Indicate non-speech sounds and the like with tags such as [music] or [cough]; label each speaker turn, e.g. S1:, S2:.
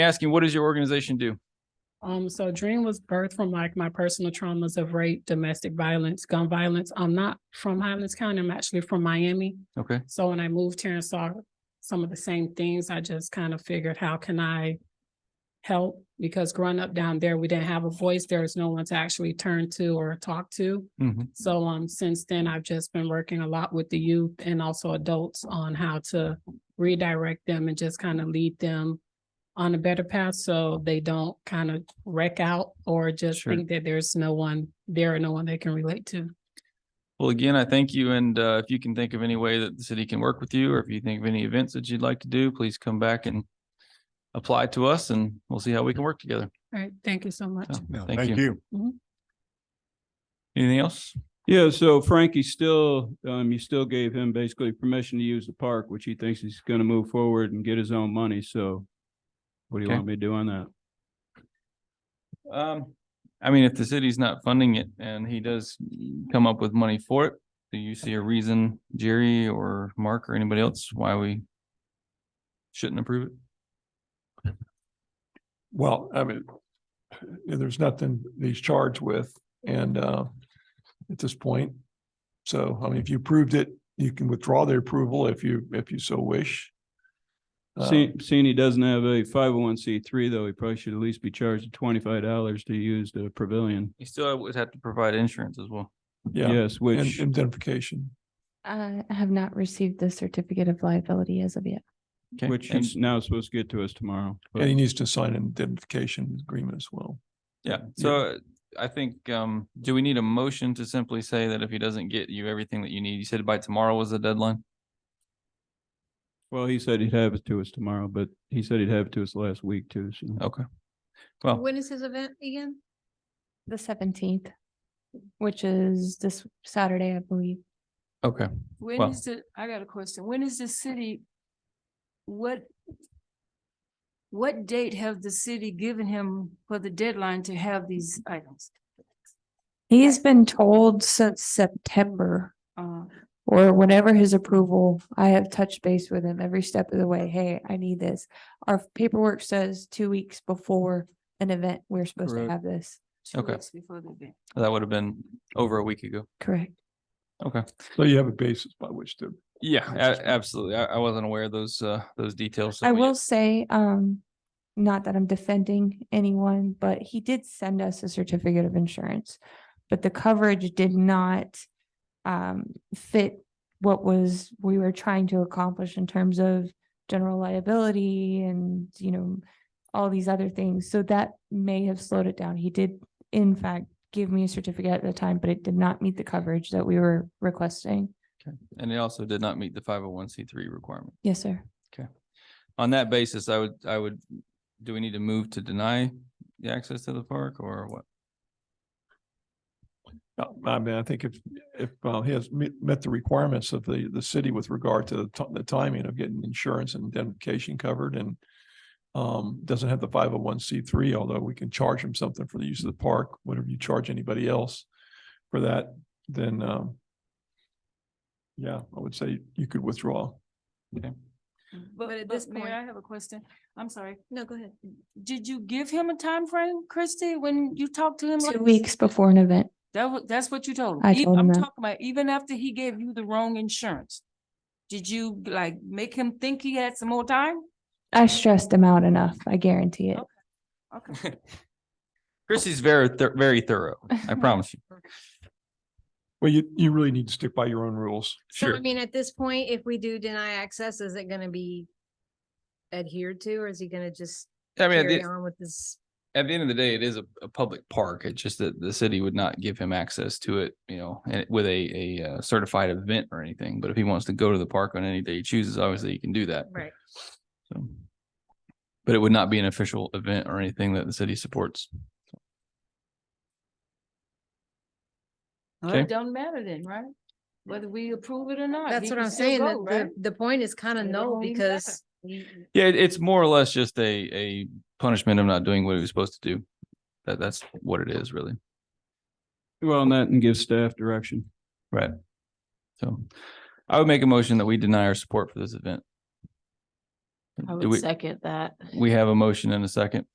S1: asking, what does your organization do?
S2: Um, so Dream was birthed from like my personal traumas of rape, domestic violence, gun violence. I'm not from Highlands County. I'm actually from Miami.
S1: Okay,
S2: So when I moved here and saw some of the same things, I just kind of figured, how can I help? Because growing up down there, we didn't have a voice. There was no one to actually turn to or talk to.
S1: Mhm.
S2: So um, since then, I've just been working a lot with the youth and also adults on how to redirect them and just kind of lead them on a better path so they don't kind of wreck out or just
S1: Sure.
S2: think that there's no one there or no one they can relate to.
S1: well, again, I thank you, and uh, if you can think of any way that the city can work with you, or if you think of any events that you'd like to do, please come back and apply to us, and we'll see how we can work together.
S2: All right. Thank you so much.
S1: So,
S3: No,
S1: Thank you.
S2: Mhm.
S1: Anything else?
S4: Yeah, so Frankie still, um, you still gave him basically permission to use the park, which he thinks he's gonna move forward and get his own money, so. What do you
S1: Okay.
S4: want me to do on that?
S1: Um, I mean, if the city's not funding it and he does come up with money for it, do you see a reason, Jerry or Mark or anybody else, why we shouldn't approve it?
S5: Well, I mean, there's nothing that he's charged with and uh, at this point. So, I mean, if you approved it, you can withdraw the approval if you, if you so wish. Uh,
S4: Seeing, seeing he doesn't have a five oh one C three, though, he probably should at least be charged twenty-five dollars to use the pavilion.
S1: You still would have to provide insurance as well.
S5: Yeah,
S4: Yes,
S5: and
S4: which,
S5: indemnification.
S6: I have not received the certificate of liability as of yet.
S1: Okay.
S4: which
S1: And-
S4: he's now supposed to get to us tomorrow. but-
S5: And he needs to sign an indemnification agreement as well.
S1: Yeah, so I think, um, do we need a motion to simply say that if he doesn't get you everything that you need, you said by tomorrow was the deadline?
S4: Well, he said he'd have it to us tomorrow, but he said he'd have it to us last week too, so.
S5: Oh.
S1: Okay. Well,
S7: When is his event again?
S6: The seventeenth, which is this Saturday, I believe.
S1: okay,
S7: When
S1: Well-
S7: is the, I got a question. When is the city? What? What date have the city given him for the deadline to have these items?
S6: He's been told since September
S7: Uh,
S6: or whenever his approval, I have touched base with him every step of the way. Hey, I need this. Our paperwork says two weeks before an event, we're supposed to
S1: Correct.
S6: have this.
S7: two
S1: Okay.
S7: weeks before the event.
S1: that would have been over a week ago.
S6: Correct.
S1: Okay,
S5: So you have a basis by which to,
S1: yeah, a- absolutely. I, I wasn't aware of those, uh, those details. so
S6: I
S1: we-
S6: will say, um, not that I'm defending anyone, but he did send us a certificate of insurance. But the coverage did not um fit what was, we were trying to accomplish in terms of general liability and, you know, all these other things. So that may have slowed it down. He did in fact give me a certificate at the time, but it did not meet the coverage that we were requesting.
S1: Okay. And it also did not meet the five oh one C three requirement.
S6: Yes, sir.
S1: On that basis, I would, I would, do we need to move to deny the access to the park or what?
S5: uh, I mean, I think if, if uh, he has met, met the requirements of the, the city with regard to the ti- the timing of getting insurance and indemnification covered and um, doesn't have the five oh one C three, although we can charge him something for the use of the park, whatever you charge anybody else for that, then um, yeah, I would say you could withdraw.
S7: But at this point,
S6: Mayor-
S7: I have a question. I'm sorry. No, go ahead. Did you give him a time frame, Christie, when you talked to him?
S6: Two
S7: like-
S6: weeks before an event.
S7: That was, that's what you told him.
S6: I
S7: E-
S6: told him
S7: I'm
S6: that.
S7: talking about even after he gave you the wrong insurance. Did you like make him think he had some more time?
S6: I stressed him out enough. I guarantee it.
S7: Okay.
S1: [laughs] Chrissy's very, thor- very thorough. I promise you.
S5: Well, you, you really need to stick by your own rules.
S8: So
S1: Sure.
S8: I mean, at this point, if we do deny access, is it gonna be adhered to, or is he gonna just
S1: I mean, at
S8: carry
S1: the-
S8: on with this?
S1: at the end of the day, it is a, a public park. It's just that the city would not give him access to it, you know, and with a, a uh, certified event or anything. But if he wants to go to the park on any day he chooses, obviously he can do that.
S8: Right.
S1: So. But it would not be an official event or anything that the city supports.
S7: Well,
S1: Okay.
S7: it don't matter then, right? Whether we approve it or not.
S8: That's
S7: he
S8: what
S7: can
S8: I'm
S7: still
S8: saying,
S7: go, right?
S8: the, the, the point is kind
S7: It
S8: of no,
S7: don't even matter.
S8: because he-
S1: Yeah, it- it's more or less just a, a punishment of not doing what he was supposed to do. That, that's what it is really.
S4: Well, and that and give staff direction.
S1: Right. So I would make a motion that we deny our support for this event.
S3: I
S1: Do
S3: would
S1: we,
S3: second that.
S1: we have a motion and a second.